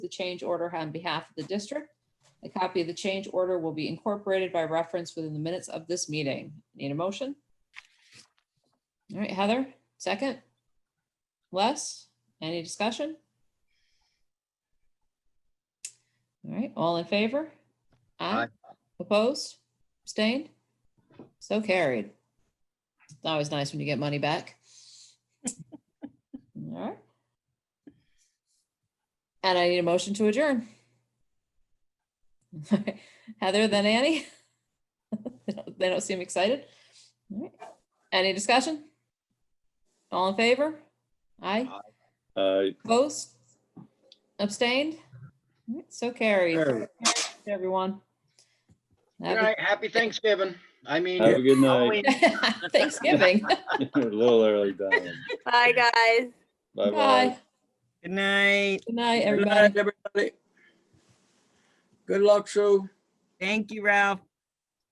the change order on behalf of the district. A copy of the change order will be incorporated by reference within the minutes of this meeting. Need a motion? All right, Heather, second? Les, any discussion? All right, all in favor? Aye. Opposed? Abstained? So carried. It's always nice when you get money back. All right. And I need a motion to adjourn. Heather, then Annie? They don't- They don't seem excited. All right. Any discussion? All in favor? Aye. Aye. Opposed? Abstained? All right, So carried. Carried. Everyone. Good Have night. Happy Thanksgiving. I mean. Have a good Halloween. night. a- Thanksgiving. A little early, Diane. Bye, guys. Bye-bye. Bye. Good night. Good night, Good everybody. night, everybody. Good luck, Sue. Thank you, Ralph.